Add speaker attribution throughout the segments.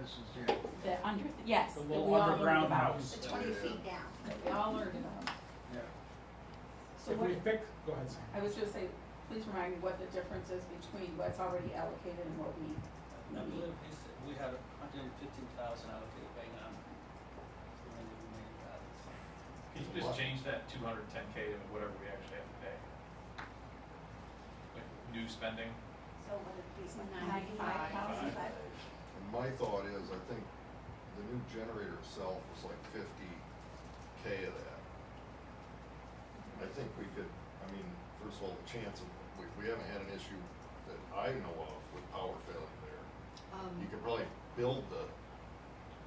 Speaker 1: this is it.
Speaker 2: The under, yes,
Speaker 1: The
Speaker 2: that we
Speaker 1: little
Speaker 2: all learned
Speaker 1: underground
Speaker 2: about,
Speaker 1: house.
Speaker 3: The twenty feet down.
Speaker 2: that we all learned about.
Speaker 1: Yeah.
Speaker 2: So
Speaker 4: If
Speaker 2: what,
Speaker 4: we pick, go ahead, Sam.
Speaker 2: I was gonna say, please remind me what the difference is between what's already allocated and what we,
Speaker 5: I believe he said we had a hundred and fifteen thousand allocated by now. So then we made it out.
Speaker 6: Can you just change that two hundred and ten K to whatever we actually have to pay? Like, new spending,
Speaker 3: So would it be
Speaker 2: It's
Speaker 3: ninety-five
Speaker 2: 95,000.
Speaker 3: thousand?
Speaker 7: And my thought is, I think the new generator itself was like fifty K of that. I think we could, I mean, first of all, the chance of, we, we haven't had an issue that I know of with power failing there.
Speaker 8: Um,
Speaker 7: You could probably build the,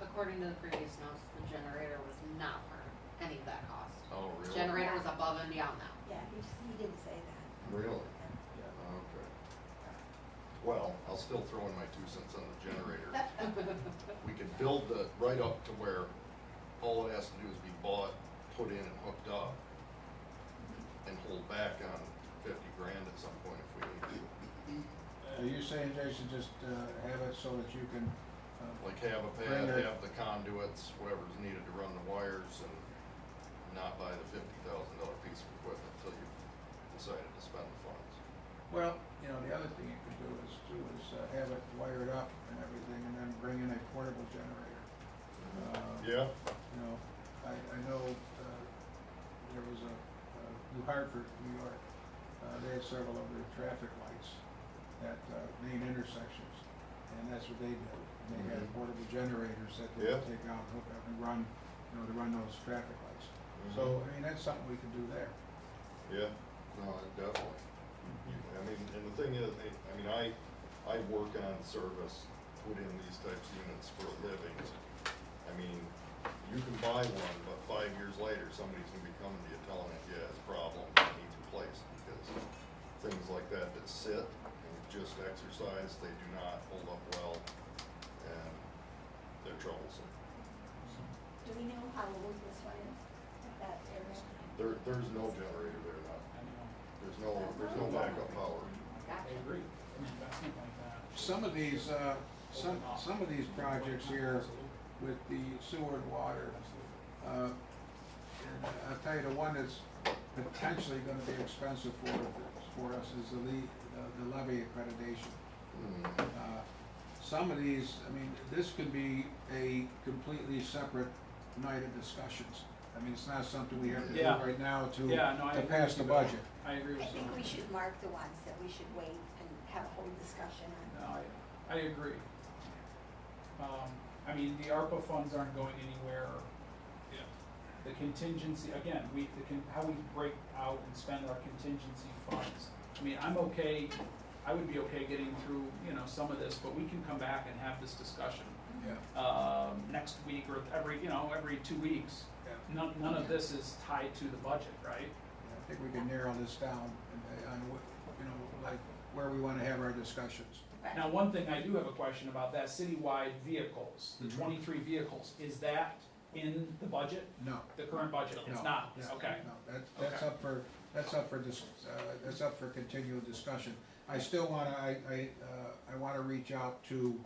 Speaker 8: according to the previous notes, the generator was not part of any of that cost.
Speaker 7: oh, really?
Speaker 8: Generator was above and beyond that.
Speaker 3: Yeah, he just, he didn't say that.
Speaker 7: Really?
Speaker 5: Yeah.
Speaker 7: Okay. Well, I'll still throw in my two cents on the generator. We could build the, right up to where all it has to do is be bought, put in and hooked up, and hold back on fifty grand at some point if we need to.
Speaker 1: Are you saying, Jason, just uh, have it so that you can, uh,
Speaker 7: Like have a
Speaker 1: Bring
Speaker 7: pad,
Speaker 1: it.
Speaker 7: have the conduits, whatever's needed to run the wires, and not buy the fifty thousand dollar piece of equipment until you've decided to spend the funds.
Speaker 1: well, you know, the other thing you could do is, too, is uh, have it wired up and everything, and then bring in a portable generator. Uh,
Speaker 7: Yeah.
Speaker 1: You know, I, I know, uh, there was a, uh, New Hartford, New York, uh, they had several of their traffic lights at, uh, main intersections. And that's what they did. And They had
Speaker 7: Mhm.
Speaker 1: portable generators that they would
Speaker 7: Yeah.
Speaker 1: take out, hook up and run, you know, to run those traffic lights. So, I mean, that's something we could do there.
Speaker 7: Yeah, no, I definitely. I mean, and the thing is, I, I mean, I, I work on service, put in these types of units for a living. I mean, you can buy one, but five years later, somebody's gonna be coming to you telling you, yeah, it's a problem, it needs replaced, because things like that that sit and just exercise, they do not hold up well, and they're troublesome.
Speaker 3: Do we know how old this one is? That area?
Speaker 7: There, there's no generator there now,
Speaker 4: I know,
Speaker 7: there's no, there's no backup power.
Speaker 4: I agree, an investment like that.
Speaker 1: Some of these, uh, some, some of these projects here with the sewer and water, Uh, and I'll tell you, the one that's potentially gonna be expensive for, for us is the lea, the- the levy accreditation.
Speaker 7: Hmm.
Speaker 1: Uh, Some of these, I mean, this could be a completely separate night of discussions. I mean, it's not something we have to do
Speaker 4: Yeah.
Speaker 1: right now to,
Speaker 4: Yeah, no, I
Speaker 1: to
Speaker 4: agree
Speaker 1: pass
Speaker 4: with
Speaker 1: the
Speaker 4: you.
Speaker 1: budget.
Speaker 4: I agree with
Speaker 3: I
Speaker 4: you.
Speaker 3: think we should mark the ones that we should wait and have a whole discussion on.
Speaker 4: No, I, I agree. Um, I mean, the ARPA funds aren't going anywhere.
Speaker 5: Yeah.
Speaker 4: The contingency, again, we, the con, how we break out and spend our contingency funds. I mean, I'm okay, I would be okay getting through, you know, some of this, but we can come back and have this discussion,
Speaker 1: Yeah.
Speaker 4: um, next week or every, you know, every two weeks.
Speaker 1: Yeah.
Speaker 4: None, none of this is tied to the budget, right?
Speaker 1: I think we can narrow this down and, uh, on what, you know, like, where we wanna have our discussions.
Speaker 4: Now, one thing I do have a question about, that citywide vehicles, the
Speaker 1: Mhm.
Speaker 4: twenty-three vehicles, is that in the budget,
Speaker 1: No.
Speaker 4: the current budget? It's
Speaker 1: No,
Speaker 4: not,
Speaker 1: no,
Speaker 4: okay.
Speaker 1: No, that's, that's
Speaker 4: Okay.
Speaker 1: up for, that's up for dis, uh, that's up for continual discussion. I still wanna, I, I, uh, I wanna reach out to,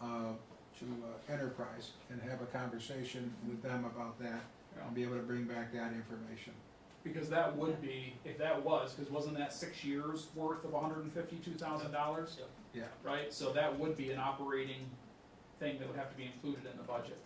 Speaker 1: uh, to uh, Enterprise and have a conversation with them about that and be able to bring back that information.
Speaker 4: Because that would be, if that was, because wasn't that six years worth of hundred and fifty-two thousand dollars?
Speaker 5: Yep.
Speaker 1: Yeah.
Speaker 4: Right, so that would be an operating thing that would have to be included in the budget,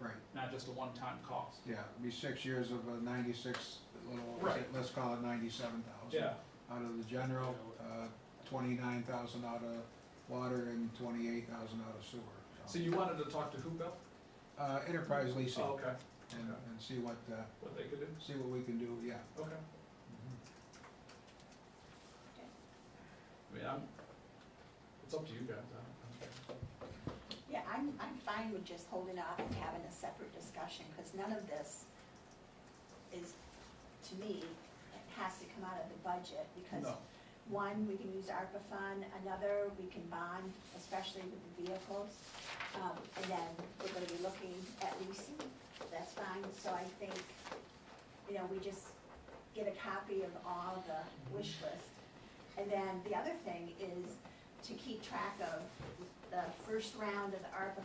Speaker 1: Right,
Speaker 4: not just a one-time cost.
Speaker 1: yeah, it'd be six years of a ninety-six, little,
Speaker 4: Right.
Speaker 1: let's call it ninety-seven thousand.
Speaker 4: Yeah,
Speaker 1: Out of the general, uh, twenty-nine thousand out of water and twenty-eight thousand out of sewer.
Speaker 4: so you wanted to talk to who, Bill?
Speaker 1: Uh, Enterprise leasing
Speaker 4: Oh, okay,
Speaker 1: and, and see what, uh,
Speaker 4: what they could do,
Speaker 1: see what we can do, yeah.
Speaker 4: okay. I mean, I'm, it's up to you guys, I don't,
Speaker 3: Yeah, I'm, I'm fine with just holding off and having a separate discussion, because none of this is, to me, it has to come out of the
Speaker 4: I
Speaker 3: budget,
Speaker 4: don't
Speaker 3: because
Speaker 4: care.
Speaker 3: one, we can use ARPA fund, another, we can bond, especially with the vehicles. Um, and then we're gonna be looking at leasing, that's fine, so I think, you know, we just get a copy of all the wish list. And then the other thing is to keep track of the first round of the ARPA